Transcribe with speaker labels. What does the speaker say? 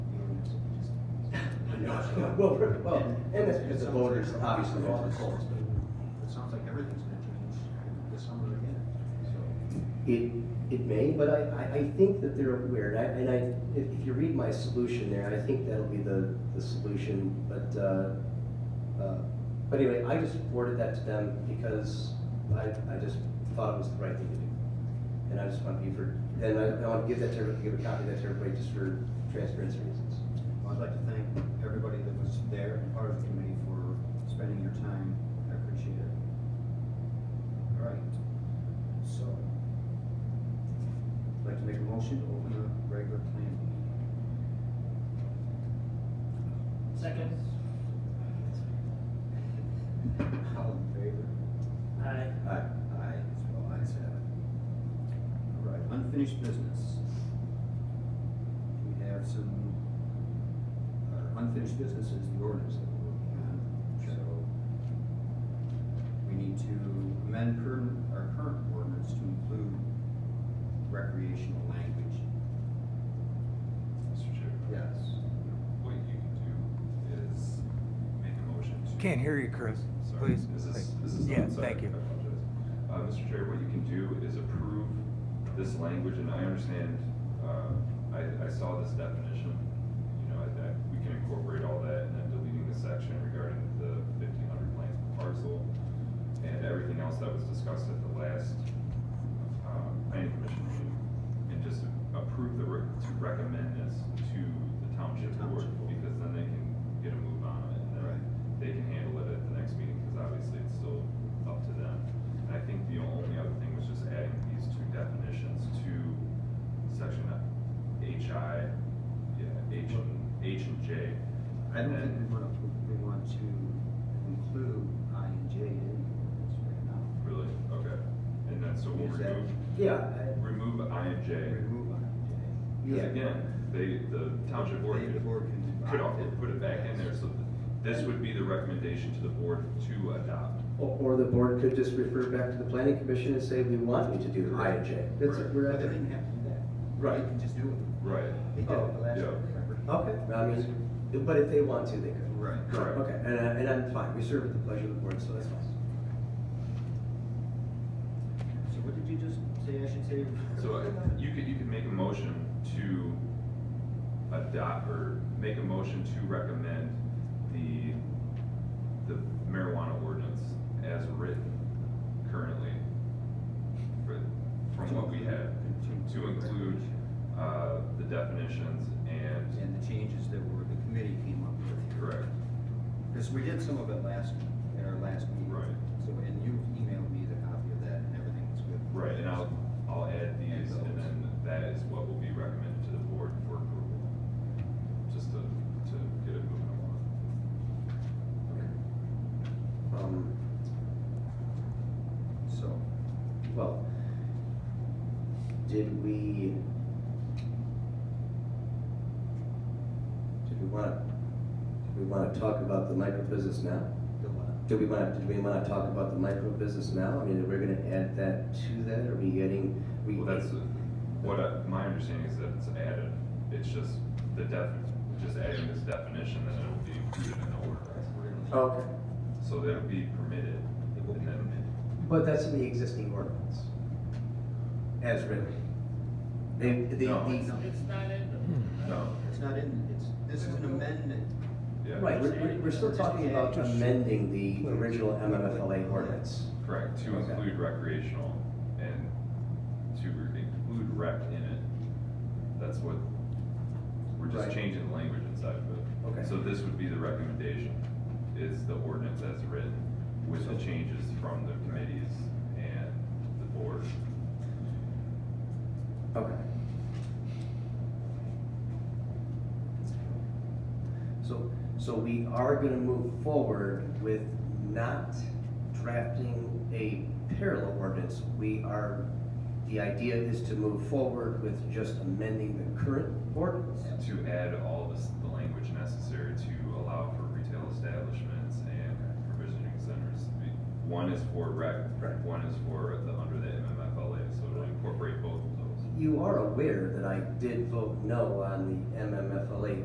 Speaker 1: Well, well, and that's because the voters, obviously, all the polls.
Speaker 2: It sounds like everything's gonna change this summer again, so.
Speaker 1: It, it may, but I, I, I think that they're aware, and I, and I, if, if you read my solution there, I think that'll be the, the solution, but, uh, uh, but anyway, I just forwarded that to them because I, I just thought it was the right thing to do. And I just want to be for, and I, I want to give that to, everybody- give a copy of that to everybody just for transparency reasons.
Speaker 2: Well, I'd like to thank everybody that was there and part of the committee for spending your time. I appreciate it. All right, so. I'd like to make a motion to open a regular plan meeting.
Speaker 3: Second.
Speaker 2: All in favor?
Speaker 3: Aye.
Speaker 1: Aye.
Speaker 2: Aye, so all ayes have it. All right, unfinished business. We have some, uh, unfinished business is the ordinance that we're working on, so we need to amend current, our current ordinance to include recreational language.
Speaker 4: Mr. Chair,
Speaker 2: Yes.
Speaker 4: what you can do is make a motion to.
Speaker 5: Can't hear you, Chris.
Speaker 4: Sorry,
Speaker 5: Please.
Speaker 4: is this,
Speaker 5: Thank-
Speaker 4: is this?
Speaker 5: Yeah,
Speaker 4: sorry,
Speaker 5: thank you.
Speaker 4: I apologize. Uh, Mr. Chair, what you can do is approve this language, and I understand, uh, I, I saw this definition. You know, I, I, we can incorporate all that, and then deleting the section regarding the fifteen hundred lands per parcel and everything else that was discussed at the last, um, planning commission meeting. And just approve the, re- to recommend this to the township board,
Speaker 2: Township board.
Speaker 4: because then they can get a move on it, and then
Speaker 2: Right.
Speaker 4: they can handle it at the next meeting, because obviously it's still up to them. And I think the only other thing was just adding these two definitions to section HI, yeah, H and, H and J.
Speaker 2: I don't think we
Speaker 4: And-
Speaker 2: want to, we want to include I and J in the ordinance right now.
Speaker 4: Really? Okay. And then, so we'll
Speaker 2: Is that-
Speaker 4: remove,
Speaker 1: Yeah, I-
Speaker 4: remove I and J.
Speaker 2: Remove I and J.
Speaker 4: Because
Speaker 1: yeah.
Speaker 4: again, they, the township board
Speaker 2: They- the board can
Speaker 4: could, could
Speaker 2: opt
Speaker 4: also
Speaker 2: in.
Speaker 4: put it back in there, so th- this would be the recommendation to the board to adopt.
Speaker 1: Or, or the board could just refer back to the planning commission and say, we want you to do I and J. That's,
Speaker 4: Right.
Speaker 1: we're
Speaker 2: But
Speaker 1: at
Speaker 2: they
Speaker 1: the.
Speaker 2: didn't have to do that.
Speaker 1: Right.
Speaker 2: They can just do it.
Speaker 4: Right.
Speaker 2: They did it the last
Speaker 4: Oh, Yeah.
Speaker 2: year, remember?
Speaker 1: Okay, I mean, but if they want to, they could.
Speaker 2: Right.
Speaker 4: Correct.
Speaker 1: Okay, and, I- and I'm fine, we serve at the pleasure of the board, so that's fine.
Speaker 2: So what did you just say I should say?
Speaker 4: So uh, you could, you could make a motion to adopt, or make a motion to recommend the, the marijuana ordinance as written currently, for, from what we have, to include, uh, the definitions and,
Speaker 2: And the changes that were, the committee came up with.
Speaker 4: correct,
Speaker 2: Because we did some of it last, at our last meeting.
Speaker 4: Right.
Speaker 2: So, and you emailed me the copy of that and everything was good.
Speaker 4: right, and I'll, I'll add these, and then that is what will be recommended to the board for approval, just to, to get it moving along.
Speaker 1: Um,
Speaker 2: So,
Speaker 1: well, did we? Did we wanna, did we wanna talk about the micro business now?
Speaker 2: the one,
Speaker 1: Do we wanna, did we wanna talk about the micro business now? I mean, we're gonna add that to that, are we getting? we-
Speaker 4: Well, that's, what I, my understanding is that it's added, it's just the def, just adding this definition, then it'll be included in the ordinance.
Speaker 1: Okay,
Speaker 4: So that'll be permitted,
Speaker 2: it will be
Speaker 4: and then,
Speaker 2: amended.
Speaker 1: but that's in the existing ordinance, as written. They, they,
Speaker 4: No.
Speaker 1: the-
Speaker 3: It's, it's not in
Speaker 4: no,
Speaker 2: It's not in, it's, this is an amendment.
Speaker 4: yeah.
Speaker 1: Right, we're, we're- we're still talking about amending the original MMFLA ordinance.
Speaker 4: Correct, to
Speaker 1: Okay.
Speaker 4: include recreational and to re- include rec in it, that's what, we're
Speaker 1: Right.
Speaker 4: just changing the language inside of it.
Speaker 1: Okay.
Speaker 4: So this would be the recommendation, is the ordinance as written with the changes from the committees and the board.
Speaker 1: Okay. So, so we are gonna move forward with not drafting a parallel ordinance. We are, the idea is to move forward with just amending the current ordinance.
Speaker 4: To add all this, the language necessary to allow for retail establishments and provisioning centers. One is for rec,
Speaker 1: Right.
Speaker 4: one is for the, under the MMFLA, so it'll incorporate both of those.
Speaker 1: You are aware that I did vote no on the MMFLA